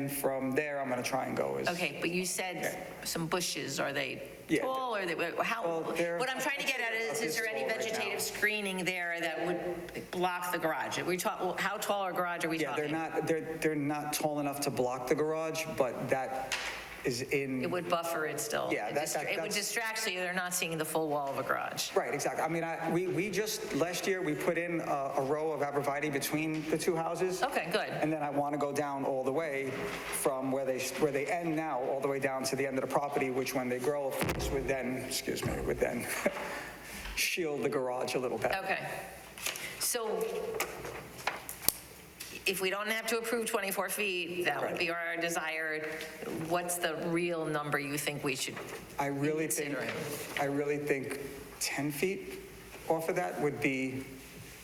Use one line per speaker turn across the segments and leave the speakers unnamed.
And from there, I'm going to try and go is.
Okay, but you said some bushes, are they
Yeah.
tall, or they, how,
Well, they're-
what I'm trying to get at is, is there any
It's tall right now.
vegetative screening there that would block the garage? Are we talking, how tall our garage are we
Yeah,
talking?
they're not, they're, they're not tall enough to block the garage, but that is in.
It would buffer it still.
Yeah,
It
that-
distra-
that-
It would
that's-
distract, so they're not seeing the full wall of a garage.
Right, exactly. I mean, I, we, we just, last year, we put in a, a row of arborvitae between the two houses.
Okay, good.
And then I want to go down all the way from where they, where they end now, all the way down to the end of the property, which when they grow, of course, would then, excuse me, would then shield the garage a little better.
Okay. So if we don't have to approve 24 feet, that would
Right.
be our desired, what's the real number you think we should
I really think,
Considering.
I really think 10 feet off of that would be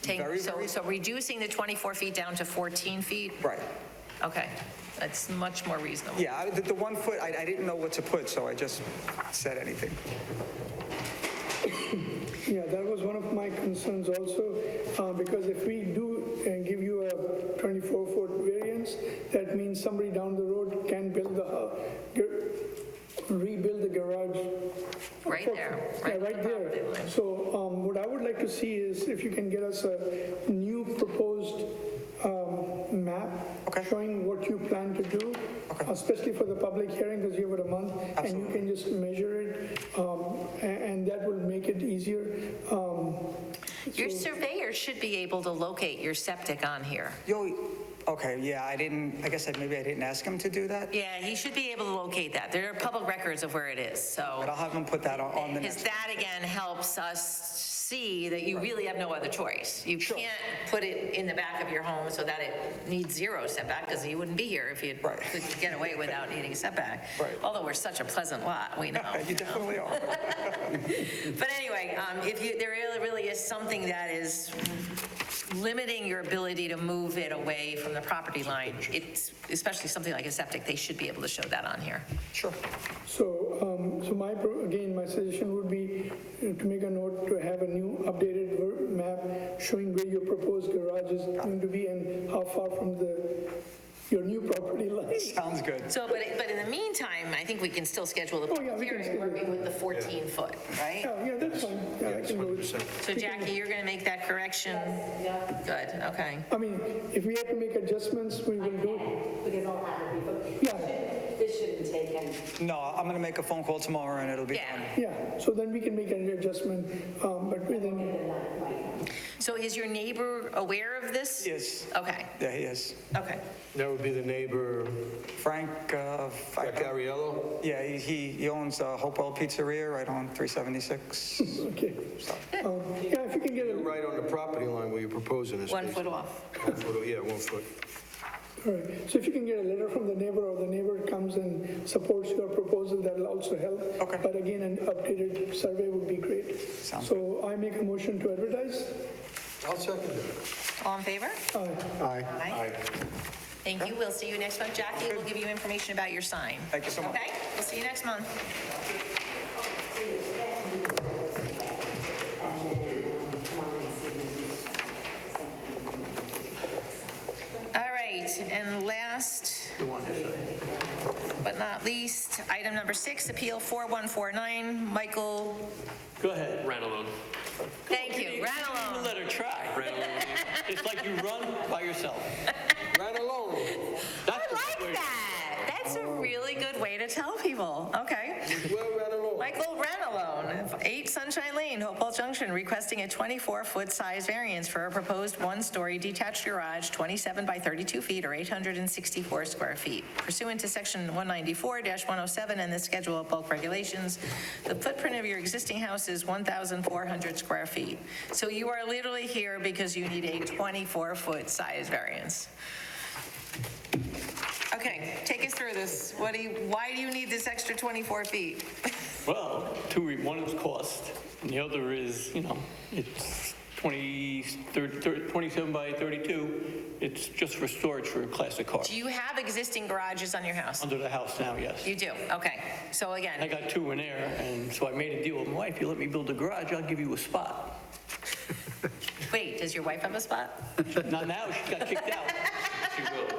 take?
very,
So-
very,
So reducing the 24 feet down to 14 feet?
right.
Okay, that's much more reasonable.
Yeah, I- the, the one foot, I, I didn't know what to put, so I just said anything.
Yeah, that was one of my concerns also, uh, because if we do uh, give you a 24-foot variance, that means somebody down the road can build the, hou- gar- rebuild the garage.
Right there,
Yeah,
right
right
on the property line.
there. So um, what I would like to see is if you can get us a new proposed um, map
Okay.
showing what you plan to do, uh, especially for the public hearing, because you have it a month, and you can just measure it, um, a- and that will make it easier. Um,
Your surveyor should be able to locate your septic on here.
Yo, okay, yeah, I didn't, I guess I, maybe I didn't ask him to do that,
Yeah, he should be able to locate that. There are public records of where it is,
but
so.
I'll have him put that on, on the
Because
next.
that, again, helps us see that you really have no other choice. You can't put it in the back of your home so that it needs zero setback, because you wouldn't be here if you
Right.
could get away without needing setback.
Right.
Although we're such a pleasant lot, we know.
You definitely are.
But anyway, um, if you, there really- really is something that is limiting your ability to move it away from the property line, it's, especially something like a septic, they should be able to show that on here.
Sure.
So, um, so my, pro- again, my suggestion would be uh, to make a note to have a new updated ver- map showing where your proposed garage is going to be and how far from the, your new property lies.
Sounds good.
So, but, but in the meantime, I think we can still schedule the
Oh, yeah,
public
we can
hearing,
schedule it.
working with the 14-foot, right?
Yeah, yeah, that's fine. Yeah, I can go with-
So Jackie, you're going to make that correction? Good, okay.
I mean, if we have to make adjustments, we will do.
Because I'll have it before.
Yeah.
This shouldn't take any.
No, I'm going to make a phone call tomorrow and it'll be done.
Yeah.
Yeah, so then we can make an adjustment, um, but within,
So is your neighbor aware of this?
Yes.
Okay,
Yeah, he is.
okay.
That would be the neighbor,
Frank, uh, I don't-
Cariello?
yeah, he- he, he owns uh, Hopewell Pizzeria right on 376.
okay. Um, Yeah, if you can get it,
Right on the property line where you're proposing this.
One foot off.
One foot, Yeah, one foot.
all right, so if you can get a letter from the neighbor or the neighbor comes and supports your proposal, that'll also help.
Okay.
But again, an updated survey would be great.
Sounds
So I make a motion to advertise.
I'll second
All in favor?
that. Aye.
Aye. Thank you. We'll see you next month. Jackie, we'll give you information about your sign.
Thank you so much.
Okay, we'll see you next month. All right, and last, but not least, item number six, Appeal 4149, Michael,
Go ahead, run alone.
thank you,
Even
Ranello.
let her try. It's like you run by yourself.
Right along.
I like that. That's a really good way to tell people. Okay.
Well, right along.
Michael Renalone, 8 Sunshine Lane, Hopewell Junction, requesting a 24-foot size variance for a proposed one-story detached garage, 27 by 32 feet or 864 square feet. Pursuant to Section 194-107 and the Schedule of Bulk Regulations, the footprint of your existing house is 1,400 square feet. So you are literally here because you need a 24-foot size variance. Okay, take us through this. What do you, why do you need this extra 24 feet?
Well, two, re- one is cost, and the other is, you know, it's 20, 30 30 27 by 32. It's just for storage for a classic car.
Do you have existing garages on your house?
Under the house now, yes.
You do, okay. So
Um, I
again,
got two in there, and so I made a deal with my wife, you let me build a garage, I'll give you a spot.
wait, does your wife have a spot?
Not now, she got kicked out. She will.